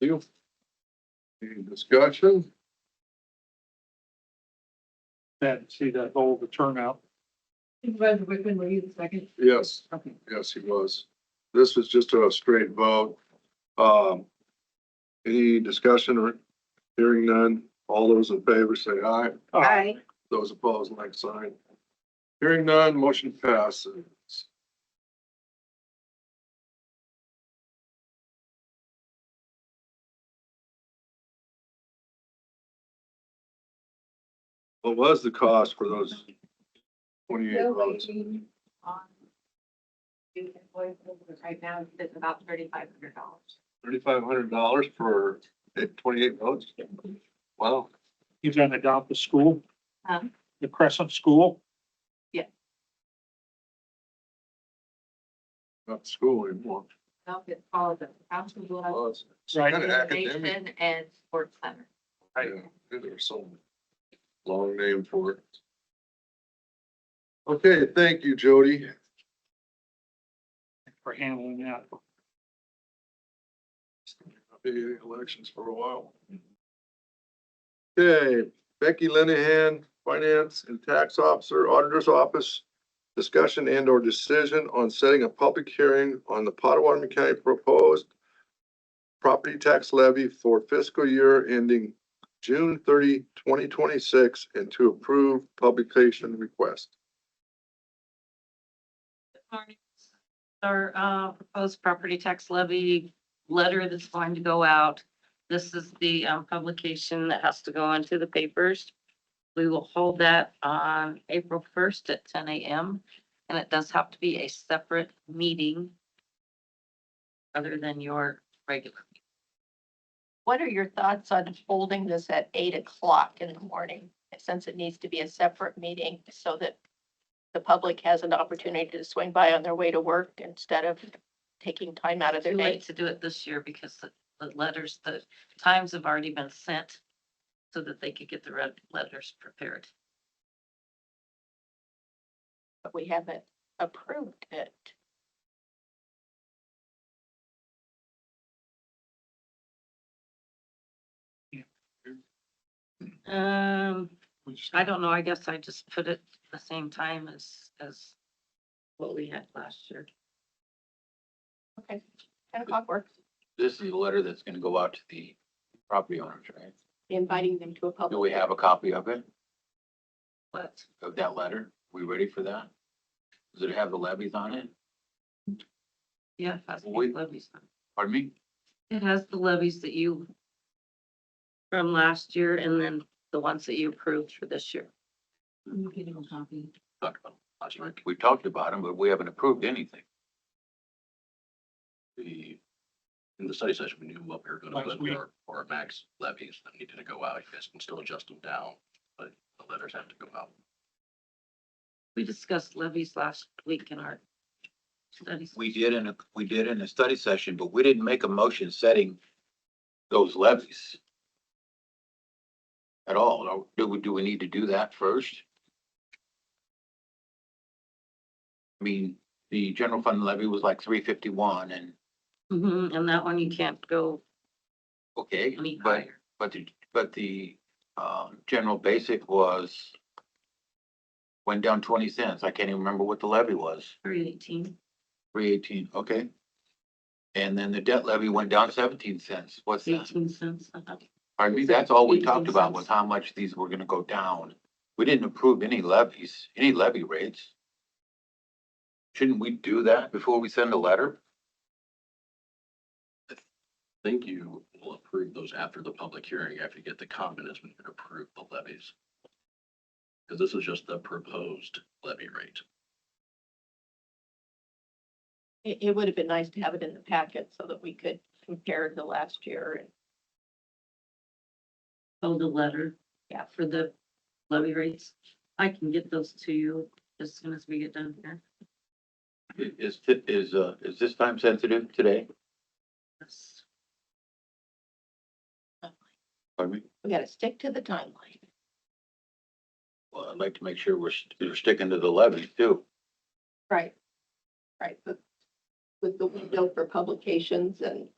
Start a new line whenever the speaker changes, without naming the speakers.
Steele. Any discussion?
That, see that whole, the turnout.
Supervisor Wickman, were you the second?
Yes.
Okay.
Yes, he was. This was just a straight vote. Um, any discussion or hearing none? All those in favor say aye.
Uh,
Those opposed, like sign. Hearing none, motion passes. What was the cost for those twenty-eight
Still
votes?
waiting on the invoice right now, it's about thirty-five hundred dollars.
Thirty-five hundred dollars for twenty-eight votes? Wow.
You're gonna adopt the school?
Huh?
The Crescent School?
Not school anymore.
No, it's called the Council of
Well, it's- it's
Right.
Kind of academic.
Information and Sports Center.
Right.
Yeah, There's some long name for it. Okay, thank you, Jody.
For handling that.
Be elections for a while. Okay, Becky Linehan, Finance and Tax Officer, Auditor's Office. Discussion and or decision on setting a public hearing on the Potawatomi County proposed property tax levy for fiscal year ending June 30, 2026, and to approve publication request.
Our uh, proposed property tax levy letter that's going to go out. This is the um, publication that has to go into the papers. We will hold that on April first at ten AM, and it does have to be a separate meeting other than your regular.
What are your thoughts on holding this at eight o'clock in the morning? Since it needs to be a separate meeting so that the public has an opportunity to swing by on their way to work instead of taking time out of their
Too
day.
late to do it this year because the, the letters, the times have already been sent so that they could get the red letters prepared.
But we haven't approved it.
Um, I don't know, I guess I just put it the same time as, as what we had last year.
Okay, ten o'clock works,
This is a letter that's gonna go out to the property owners, right?
inviting them to a public.
Do we have a copy of it,
But
of that letter? We ready for that? Does it have the levies on it?
yeah, it has the
We-
levies. on
Pardon me?
it. It has the levies that you from last year and then the ones that you approved for this year.
You can a copy.
Talked about it last week. We talked about them, but we haven't approved anything.
the, in the study session, we knew what we were gonna
Last
put
week.
for, for our max levies that needed to go out. You guys can still adjust them down, but the letters have to go out.
We discussed levies last week in our studies.
We did in a, we did in a study session, but we didn't make a motion setting those levies at all. Do we, do we need to do that first? I mean, the general fund levy was like three fifty-one and,
Mhm, and that one you can't go
okay,
any
but,
higher.
but the, but the, um, general basic was went down twenty cents. I can't even remember what the levy was.
Three eighteen,
Three eighteen, okay. And then the debt levy went down seventeen cents. What's that?
eighteen cents. uh-huh.
Pardon me, that's all we talked
18
about was
cents.
how much these were gonna go down. We didn't approve any levies, any levy rates. Shouldn't we do that before we send a letter?
I think you will approve those after the public hearing, after you get the confidence we can approve the levies. Because this is just the proposed levy rate.
It, it would have been nice to have it in the packet so that we could compare to last year and
Oh, the letter.
Yeah.
For the levy rates. I can get those to you as soon as we get done here.
I- Is, thi- is, uh, is this time sensitive today?
Yes.
Pardon me?
we gotta stick to the timeline.
Well, I'd like to make sure we're, st- we're sticking to the levies too.
Right. Right, but with the window for publications and